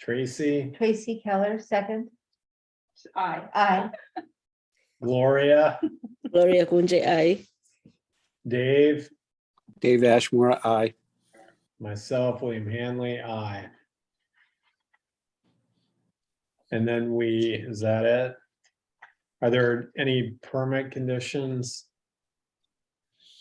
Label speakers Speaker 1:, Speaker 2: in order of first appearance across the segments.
Speaker 1: Tracy,
Speaker 2: Tracy Keller, second.
Speaker 3: Aye.
Speaker 2: Aye.
Speaker 1: Gloria,
Speaker 4: Gloria Gunje, aye.
Speaker 1: Dave,
Speaker 5: Dave Ashmore, aye.
Speaker 1: myself, William Hanley, I. And then we, is that it? Are there any permit conditions?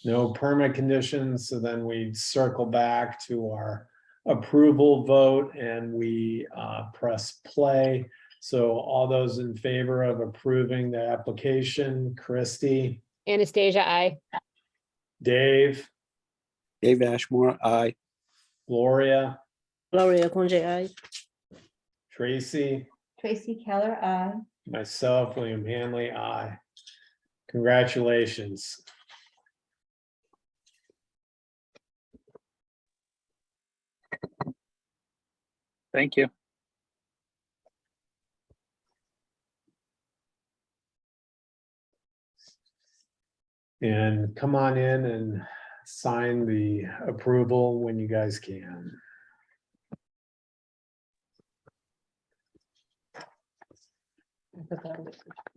Speaker 1: No permit conditions, so then we circle back to our approval vote and we uh, press play. So all those in favor of approving the application, Christie,
Speaker 6: Anastasia, I.
Speaker 1: Dave,
Speaker 5: Dave Ashmore, aye.
Speaker 1: Gloria,
Speaker 4: Gloria Gunje, aye.
Speaker 1: Tracy?
Speaker 2: Tracy Keller, aye.
Speaker 1: Myself, William Hanley, I. Congratulations.
Speaker 7: Thank you.
Speaker 1: And come on in and sign the approval when you guys can.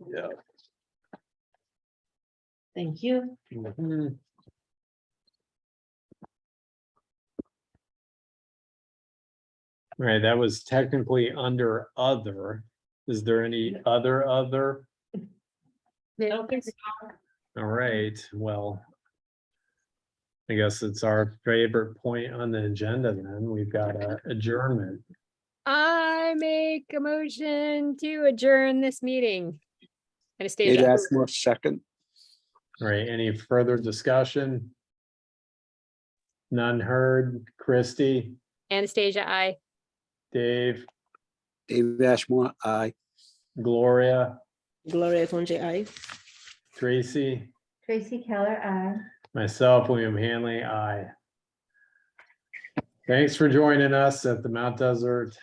Speaker 1: Yeah.
Speaker 2: Thank you.
Speaker 1: Mm-hmm. Right, that was technically under other. Is there any other other? All right, well. I guess it's our favorite point on the agenda then. We've got a adjournment.
Speaker 6: I make a motion to adjourn this meeting.
Speaker 5: Dave
Speaker 6: Anastasia,
Speaker 5: Ashmore, second.
Speaker 1: All right, any further discussion? None heard. Christie,
Speaker 6: Anastasia, I.
Speaker 1: Dave,
Speaker 5: Dave Ashmore, aye.
Speaker 1: Gloria,
Speaker 4: Gloria Gunje, aye.
Speaker 1: Tracy,
Speaker 2: Tracy Keller, aye.
Speaker 1: myself, William Hanley, I. Thanks for joining us at the Mount Desert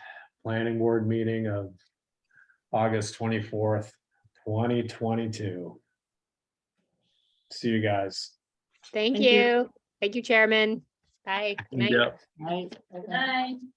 Speaker 1: Planning Board meeting of August twenty-fourth, twenty twenty-two. See you guys.
Speaker 6: Thank
Speaker 2: Thank you.
Speaker 6: you. Thank you, Chairman. Bye. Good night.
Speaker 2: Aye.
Speaker 3: Aye.